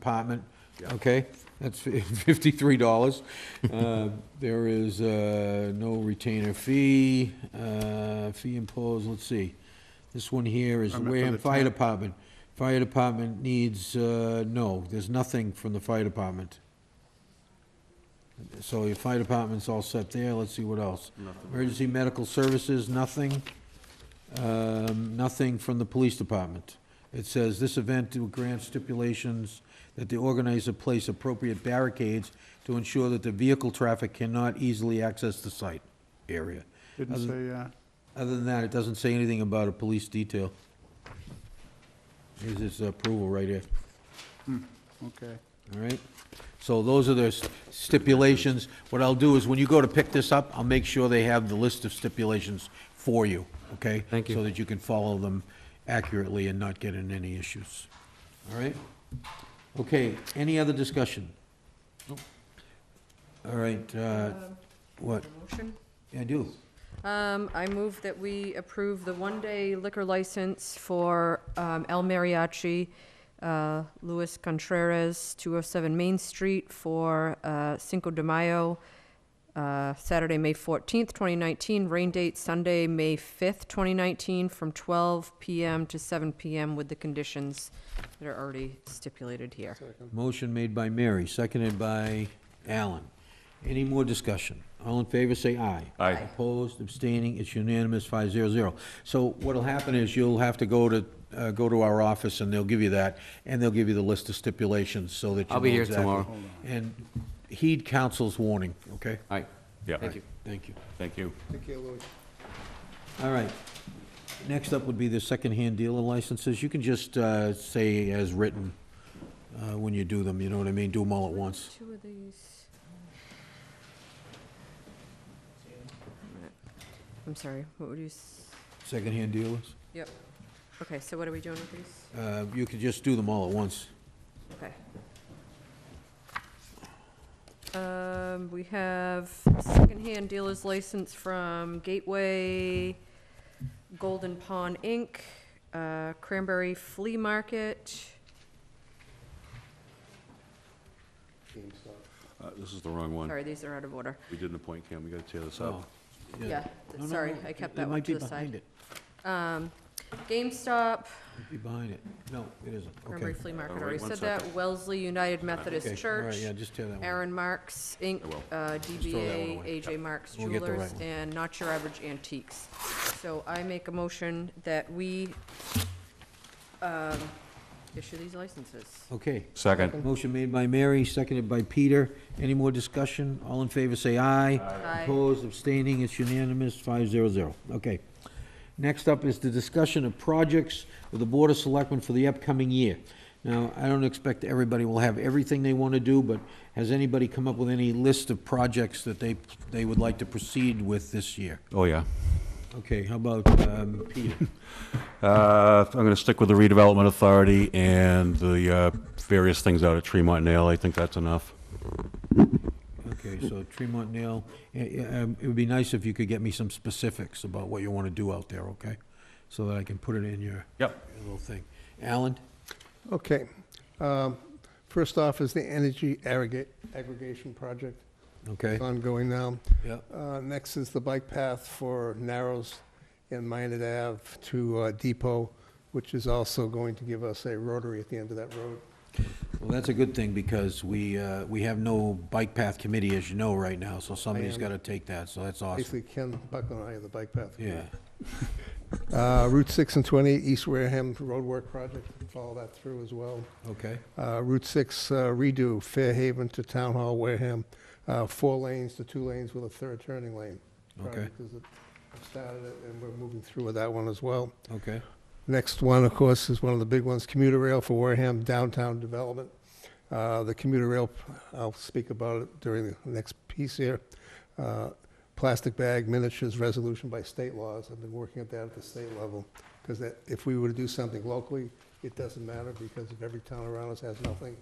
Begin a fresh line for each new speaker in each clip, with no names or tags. department, okay? That's fifty-three dollars. There is uh, no retainer fee, uh, fee imposed, let's see. This one here is
I meant for
Wareham
the
Fire
temp.
Department. Fire Department needs, uh, no, there's nothing from the fire department. So your fire department's all set there, let's see what else. Emergency medical services, nothing. Um, nothing from the police department. It says, "This event will grant stipulations that the organizer place appropriate barricades to ensure that the vehicle traffic cannot easily access the site area."
Didn't
Other-
say, uh,
Other than that, it doesn't say anything about a police detail. Here's his approval right here,
okay.
all right? So those are the stipulations. What I'll do is, when you go to pick this up, I'll make sure they have the list of stipulations for you, okay?
Thank you.
So that you can follow them accurately and not get in any issues, all right? Okay, any other discussion? All right, uh, what?
Motion?
I do.
Um, I move that we approve the one-day liquor license for, um, El Mariachi, uh, Luis Contreras, two oh seven Main Street for, uh, Cinco de Mayo, uh, Saturday, May fourteenth, twenty nineteen, rain date Sunday, May fifth, twenty nineteen, from twelve PM to seven PM with the conditions that are already stipulated here.
Motion made by Mary, seconded by Alan. Any more discussion? All in favor, say aye.
Aye.
Opposed, abstaining, it's unanimous, five zero zero. So what'll happen is you'll have to go to, uh, go to our office, and they'll give you that, and they'll give you the list of stipulations, so that you know
I'll be here
exactly.
tomorrow.
And heed counsel's warning, okay?
All right.
Yeah.
Thank you.
Thank you.
Thank you.
All right. Next up would be the secondhand dealer licenses. You can just uh, say as written uh, when you do them, you know what I mean? Do them all at once.
Two of these. I'm sorry, what would you, s-
Secondhand dealers?
yep. Okay, so what are we doing with these?
Uh, You could just do them all at once.
Okay. Um, we have secondhand dealer's license from Gateway, Golden Pawn Inc., uh, Cranberry Flea Market.
Uh, This is the wrong one.
Sorry, these are out of order.
We didn't appoint Cam, we gotta tear this
Oh,
up.
Yeah,
No, no,
sorry,
no,
I kept
it-
that one to the
It might be behind
side.
it,
GameStop,
It might be behind it. No, it isn't,
Cranberry
okay.
Flea Market,
wait
already
one
said that. Wellesley United
Okay,
Methodist
All
Church,
right, yeah, just tear that one.
Aaron Marks, Inc.,
I will.
uh,
throw that one
DBA,
away.
AJ Marks
We'll get the
Jewelers,
right one.
and Not Your Average Antiques. So I make a motion that we um, issue these licenses.
Okay.
Second.
Motion made by Mary, seconded by Peter. Any more discussion? All in favor, say aye.
Aye.
Opposed, abstaining, it's unanimous, five zero zero. Okay. Next up is the discussion of projects with the Board of Selectmen for the upcoming year. Now, I don't expect everybody will have everything they want to do, but has anybody come up with any list of projects that they, they would like to proceed with this year?
Oh, yeah.
Okay, how about, um, Peter?
Uh, I'm gonna stick with the redevelopment authority and the uh, various things out at Tremont Nail. I think that's enough.
Okay, so Tremont Nail, eh, eh, um, it would be nice if you could get me some specifics about what you want to do out there, okay? So that I can put it in your
Yep.
your little thing. Alan?
Okay. um, First off is the energy aggregate, aggregation project,
Okay,
It's ongoing now.
yeah,
Uh, Next is the bike path for Narrows and Minot Ave to uh, Depot, which is also going to give us a rotary at the end of that road.
well, that's a good thing, because we, uh, we have no bike path committee, as you know, right now, so somebody's
am-
got to take that, so that's awesome.
Basically, Ken Buckland and I are the bike path.
Yeah,
Uh, Route 6 and 20, East Wareham roadwork project, follow that through as well.
okay,
Uh, Route 6 uh, redo, Fairhaven to Town Hall, Wareham, uh, four lanes to two lanes with a third turning lane.
Okay.
Project is- I've started it, and we're moving through with that one as well.
okay,
Next one, of course, is one of the big ones, commuter rail for Wareham downtown development. Uh, The commuter rail, I'll speak about it during the next piece here. Uh, Plastic bag miniatures resolution by state laws. I've been working at that at the state level. Because that, if we were to do something locally, it doesn't matter because if every town around us has nothing,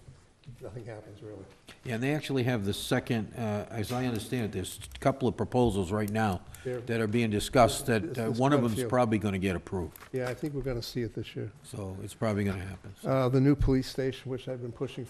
nothing happens really.
Yeah, and they actually have the second, uh, as I understand it, there's a couple of proposals right now
There-
that are being discussed, that
There's-
uh,
there's
one of
quite a
them's
few.
probably going to get approved,
Yeah, I think we're going to see it this year.
so it's probably going to happen, so.
Uh, The new police station, which I've been pushing